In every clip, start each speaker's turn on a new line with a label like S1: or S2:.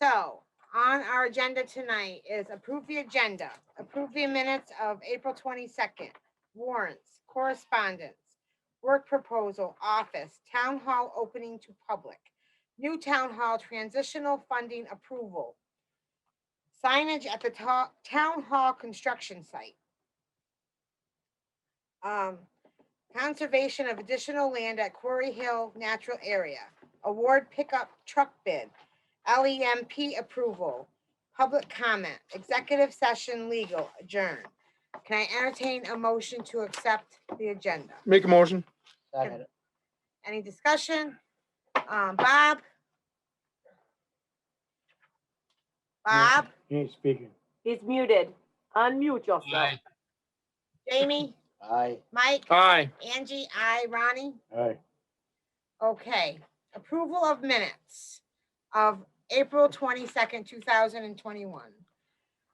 S1: So on our agenda tonight is approve the agenda, approve the minutes of April twenty-second, warrants, correspondence, work proposal, office, town hall opening to public, new town hall transitional funding approval, signage at the ta- town hall construction site. Um, conservation of additional land at Quarry Hill Natural Area, award pickup truck bid, LEMP E approval, public comment, executive session legal adjourn. Can I entertain a motion to accept the agenda?
S2: Make a motion.
S3: Second.
S1: Any discussion? Um, Bob? Bob,
S2: He ain't speaking.
S4: He's muted. Unmute yourself.
S3: Aye.
S1: Jamie,
S3: Aye.
S1: Mike,
S2: Aye.
S1: Angie, I, Ronnie?
S2: Aye.
S1: Okay, approval of minutes of April twenty-second, two thousand and twenty-one.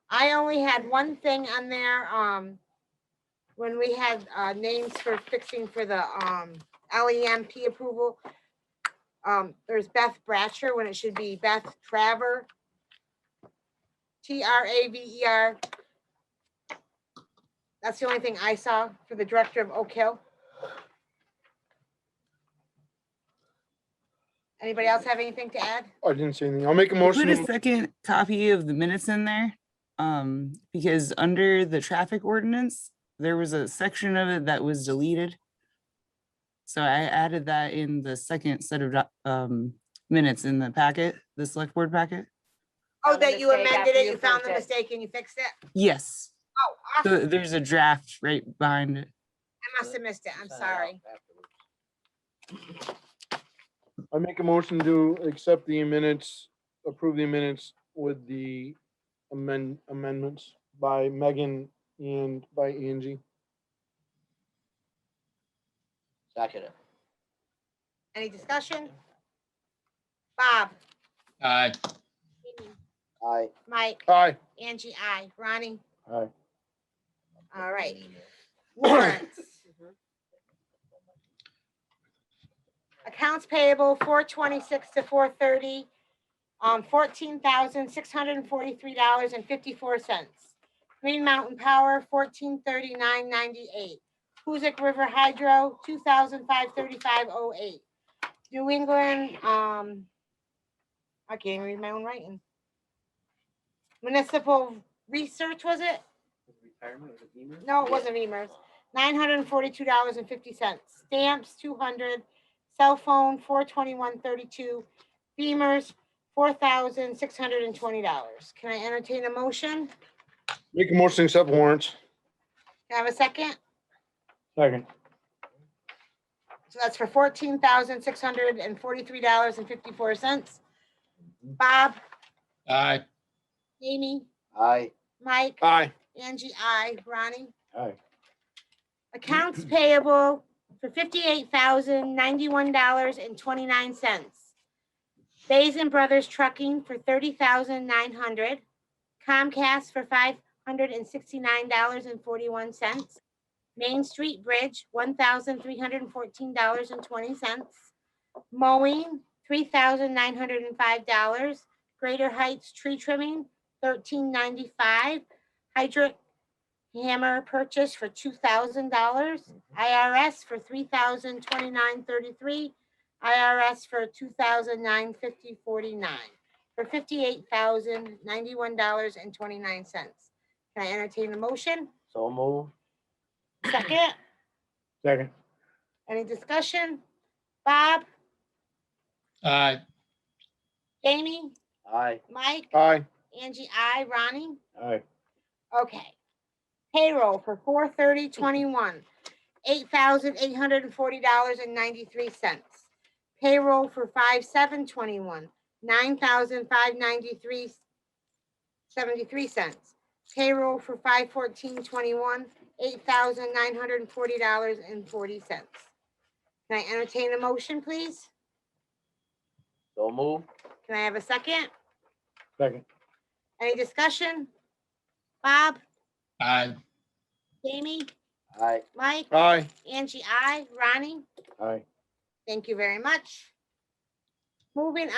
S1: I only had one thing on there, um, when we had, uh, names for fixing for the, um, LEMP approval. Um, there's Beth Bratcher, when it should be Beth Traver. T R A V E R. That's the only thing I saw for the director of Oak Hill. Anybody else have anything to add?
S2: I didn't see anything. I'll make a
S5: I Put
S2: motion.
S5: a
S2: to-
S5: second copy of the minutes in there, um, because under the traffic ordinance, there was a section of it that was deleted. So I added that in the second set of, doc- um, minutes in the packet, the select board packet.
S1: Oh,
S4: found the
S1: that you
S4: mistake
S1: amended
S4: after
S1: it,
S4: you
S1: you found the
S4: approved it.
S1: mistake and you fixed it?
S5: Yes,
S1: Oh, awesome.
S5: so there's a draft right behind it.
S1: I must have missed it, I'm sorry.
S2: I make a motion to accept the minutes, approve the minutes with the amend, amendments by Megan and by Angie.
S3: Second.
S1: Any discussion? Bob?
S3: Aye. Aye.
S1: Mike?
S2: Aye.
S1: Angie, I. Ronnie?
S2: Aye.
S1: All right. Warrants. Accounts payable, four twenty-six to four thirty, um, fourteen thousand, six hundred and forty-three dollars and fifty-four cents. Green Mountain Power, fourteen thirty-nine ninety-eight. Hoosick River Hydro, two thousand five thirty-five oh eight. New England, um, I can't even read my own writing. Municipal Research, was it? No, it wasn't Reimers. Nine hundred and forty-two dollars and fifty cents. Stamps, two hundred. Cell phone, four twenty-one thirty-two. Beamers, four thousand six hundred and twenty dollars. Can I entertain a motion?
S2: Make a motion to accept warrants.
S1: Can I have a second?
S2: Second.
S1: So that's for fourteen thousand six hundred and forty-three dollars and fifty-four cents. Bob,
S3: Aye.
S1: Amy,
S3: Aye.
S1: Mike,
S2: Aye.
S1: Angie, I, Ronnie.
S2: Aye.
S1: Accounts payable for fifty-eight thousand ninety-one dollars and twenty-nine cents. Bays and Brothers Trucking for thirty thousand nine hundred. Comcast for five hundred and sixty-nine dollars and forty-one cents. Main Street Bridge, one thousand three hundred and fourteen dollars and twenty cents. Mowing, three thousand nine hundred and five dollars. Greater Heights Tree Trimming, thirteen ninety-five. Hydrant Hammer purchase for two thousand dollars, IRS for three thousand twenty-nine thirty-three, IRS for two thousand nine fifty forty-nine, for fifty-eight thousand ninety-one dollars and twenty-nine cents. Can I entertain the motion?
S3: So move.
S1: Second,
S2: Second.
S1: any discussion? Bob,
S3: Aye.
S1: Jamie,
S3: Aye.
S1: Mike,
S2: Aye.
S1: Angie, I, Ronnie?
S2: Aye.
S1: Okay. Payroll for four thirty twenty-one, eight thousand eight hundred and forty dollars and ninety-three cents. Payroll for five seven twenty-one, nine thousand five ninety-three seventy-three cents. Payroll for five fourteen twenty-one, eight thousand nine hundred and forty dollars and forty cents. Can I entertain a motion, please?
S3: So move.
S1: Can I have a second?
S2: Second.
S1: Any discussion? Bob,
S3: Aye.
S1: Jamie,
S3: Aye.
S1: Mike,
S2: Aye.
S1: Angie, I, Ronnie?
S2: Aye.
S1: Thank you very much. Moving